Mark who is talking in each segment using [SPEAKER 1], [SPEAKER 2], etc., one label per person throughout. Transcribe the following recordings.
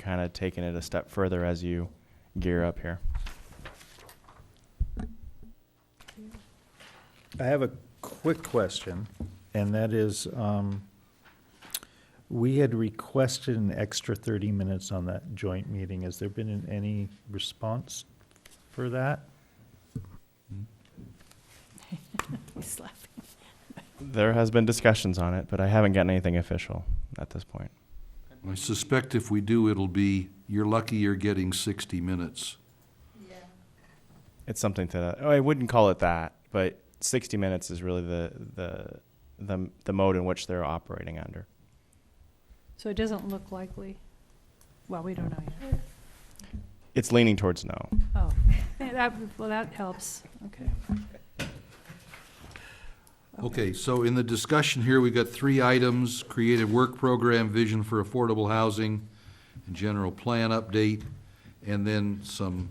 [SPEAKER 1] kind of taking it a step further as you gear up here.
[SPEAKER 2] I have a quick question, and that is, um, we had requested an extra thirty minutes on that joint meeting. Has there been an- any response for that?
[SPEAKER 3] He's laughing.
[SPEAKER 1] There has been discussions on it, but I haven't gotten anything official at this point.
[SPEAKER 4] I suspect if we do, it'll be, you're lucky you're getting 60 minutes.
[SPEAKER 1] It's something to that. Oh, I wouldn't call it that, but 60 minutes is really the the the, the mode in which they're operating under.
[SPEAKER 3] So it doesn't look likely. Well, we don't know yet.
[SPEAKER 1] It's leaning towards no.
[SPEAKER 3] Oh, yeah, that, well, that helps. Okay.
[SPEAKER 4] Okay, so in the discussion here, we've got three items, creative work program, vision for affordable housing, and general plan update, and then some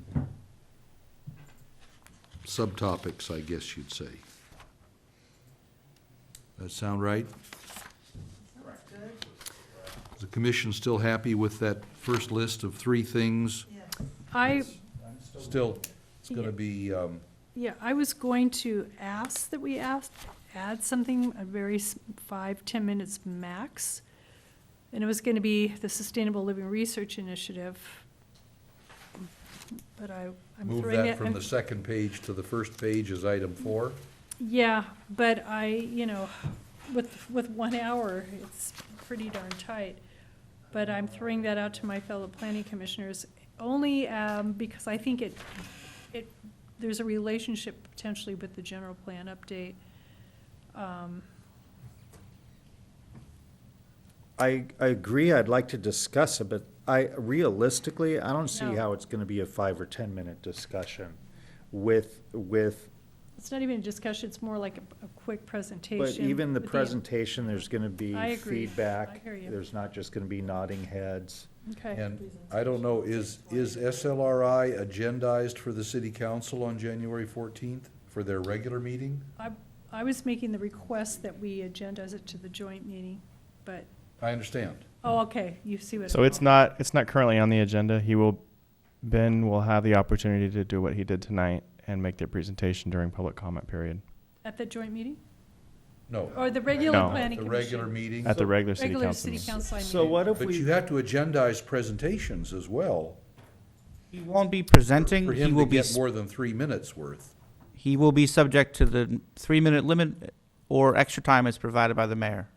[SPEAKER 4] subtopics, I guess you'd say. That sound right? Is the commission still happy with that first list of three things?
[SPEAKER 3] I,
[SPEAKER 4] Still, it's gonna be, um,
[SPEAKER 3] yeah, I was going to ask that we ask, add something, a very s- five, 10 minutes max. And it was going to be the Sustainable Living Research Initiative. But I, I'm
[SPEAKER 4] move
[SPEAKER 3] throwing
[SPEAKER 4] that
[SPEAKER 3] it,
[SPEAKER 4] from
[SPEAKER 3] I'm
[SPEAKER 4] the second page to the first page as item four?
[SPEAKER 3] Yeah, but I, you know, with, with one hour, it's pretty darn tight. But I'm throwing that out to my fellow planning commissioners, only um, because I think it, it, there's a relationship potentially with the general plan update. Um,
[SPEAKER 2] I, I agree, I'd like to discuss it, but I, realistically, I don't see
[SPEAKER 3] No.
[SPEAKER 2] how it's gonna be a five or ten-minute discussion with, with
[SPEAKER 3] It's not even a discussion, it's more like a, a quick presentation.
[SPEAKER 2] But even the
[SPEAKER 3] with
[SPEAKER 2] presentation, there's going to be
[SPEAKER 3] I agree. I
[SPEAKER 2] feedback.
[SPEAKER 3] hear you.
[SPEAKER 2] There's not just going to be nodding heads.
[SPEAKER 3] Okay,
[SPEAKER 4] And I don't know, is, is SLRI agendized for the city council on January fourteenth for their regular meeting?
[SPEAKER 3] I, I was making the request that we agendize it to the joint meeting, but,
[SPEAKER 4] I understand.
[SPEAKER 3] oh, okay, you see what.
[SPEAKER 1] So it's not it's not currently on the agenda. He will Ben will have the opportunity to do what he did tonight and make their presentation during public comment period
[SPEAKER 3] At the joint meeting?
[SPEAKER 4] No.
[SPEAKER 3] Or the regular
[SPEAKER 1] No.
[SPEAKER 3] planning
[SPEAKER 4] The regular
[SPEAKER 3] Oh, commission.
[SPEAKER 4] meeting.
[SPEAKER 1] at the regular city
[SPEAKER 3] Regular
[SPEAKER 1] council.
[SPEAKER 3] city
[SPEAKER 1] meeting.
[SPEAKER 3] council, I
[SPEAKER 2] So
[SPEAKER 3] mean.
[SPEAKER 2] what if
[SPEAKER 4] But you
[SPEAKER 2] we,
[SPEAKER 4] have to agendize presentations as well.
[SPEAKER 5] He won't be
[SPEAKER 4] For
[SPEAKER 5] presenting, he
[SPEAKER 4] him to
[SPEAKER 5] will be,
[SPEAKER 4] get more than three minutes worth.
[SPEAKER 5] he will be subject to the three-minute limit or extra time as provided by the mayor.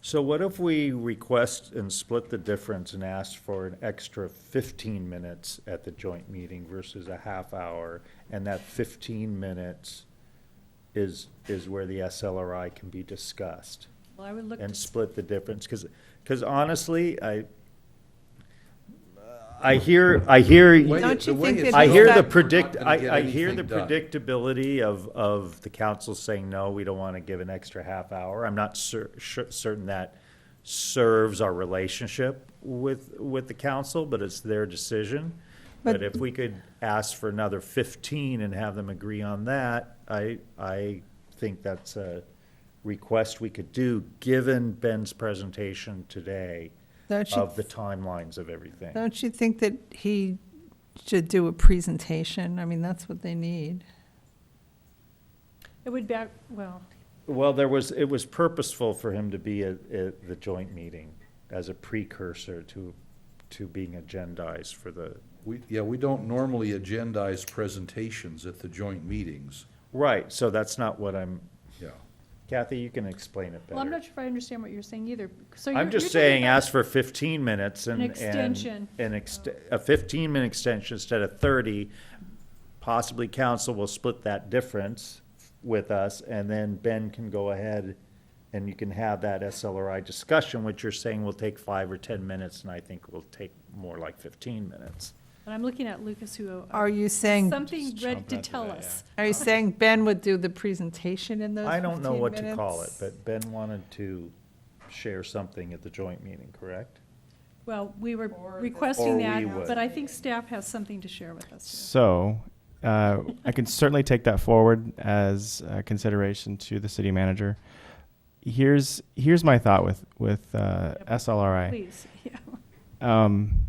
[SPEAKER 2] so what if we request and split the difference and ask for an extra 15 minutes at the joint meeting versus a half hour? And that 15 minutes is, is where the SLRI can be discussed?
[SPEAKER 3] Well, I would look,
[SPEAKER 2] and
[SPEAKER 3] to-
[SPEAKER 2] split the difference, because, honestly, I, I hear, I hear.
[SPEAKER 4] Way-
[SPEAKER 6] Don't you
[SPEAKER 4] the way
[SPEAKER 6] think
[SPEAKER 4] it's
[SPEAKER 6] that
[SPEAKER 2] I
[SPEAKER 6] Because
[SPEAKER 2] hear the
[SPEAKER 4] done, we're
[SPEAKER 6] that-
[SPEAKER 4] not
[SPEAKER 2] predict,
[SPEAKER 4] gonna get
[SPEAKER 2] I, I hear the
[SPEAKER 4] anything done.
[SPEAKER 2] predictability of, of the council saying, no, we don't want to give an extra half hour. I'm not cer- cer- certain that serves our relationship with, with the council, but it's their decision. But
[SPEAKER 6] But-
[SPEAKER 2] if we could ask for another fifteen and have them agree on that, I, I think that's a request we could do, given Ben's presentation today
[SPEAKER 6] Don't you,
[SPEAKER 2] of the timelines of everything.
[SPEAKER 6] don't you think that he should do a presentation? I mean, that's what they need.
[SPEAKER 3] it would back, well,
[SPEAKER 2] Well, there was, it was purposeful for him to be at, at the joint meeting as a precursor to, to being agendized for the,
[SPEAKER 4] We, yeah, we don't normally agendize presentations at the joint meetings,
[SPEAKER 2] right, so that's not what I'm,
[SPEAKER 4] yeah.
[SPEAKER 2] Kathy, you can explain it
[SPEAKER 3] well, I'm
[SPEAKER 2] better.
[SPEAKER 3] not sure if I understand what you're saying either. So you're-
[SPEAKER 2] I'm
[SPEAKER 3] Oh, you're
[SPEAKER 2] just
[SPEAKER 3] talking
[SPEAKER 2] saying,
[SPEAKER 3] about-
[SPEAKER 2] ask for fifteen minutes and,
[SPEAKER 3] An
[SPEAKER 2] and.
[SPEAKER 3] extension.
[SPEAKER 2] An ext, a fifteen-minute extension instead of thirty. Possibly council will split that difference with us, and then Ben can go ahead and you can have that SLRI discussion, which you're saying will take five or ten minutes, and I think will take more like fifteen minutes.
[SPEAKER 3] And I'm looking at Lucas who. uh,
[SPEAKER 6] Are you saying,
[SPEAKER 3] Something
[SPEAKER 1] Just
[SPEAKER 3] ready
[SPEAKER 1] jump
[SPEAKER 3] to
[SPEAKER 1] into
[SPEAKER 3] tell
[SPEAKER 1] that,
[SPEAKER 3] us.
[SPEAKER 6] are you saying Ben would do the presentation in those
[SPEAKER 2] I don't know
[SPEAKER 6] 15
[SPEAKER 2] what to call it,
[SPEAKER 6] minutes?
[SPEAKER 2] but Ben wanted to share something at the joint meeting, correct?
[SPEAKER 3] Well, we were
[SPEAKER 2] Or
[SPEAKER 3] requesting
[SPEAKER 2] we would.
[SPEAKER 3] that, but I think staff has something to share with us.
[SPEAKER 1] So uh, I can certainly take that forward as uh, consideration to the city manager. Here's here's my thought with with uh,
[SPEAKER 3] Yep.
[SPEAKER 1] SLRI.
[SPEAKER 3] too. Please, yeah.
[SPEAKER 1] Um,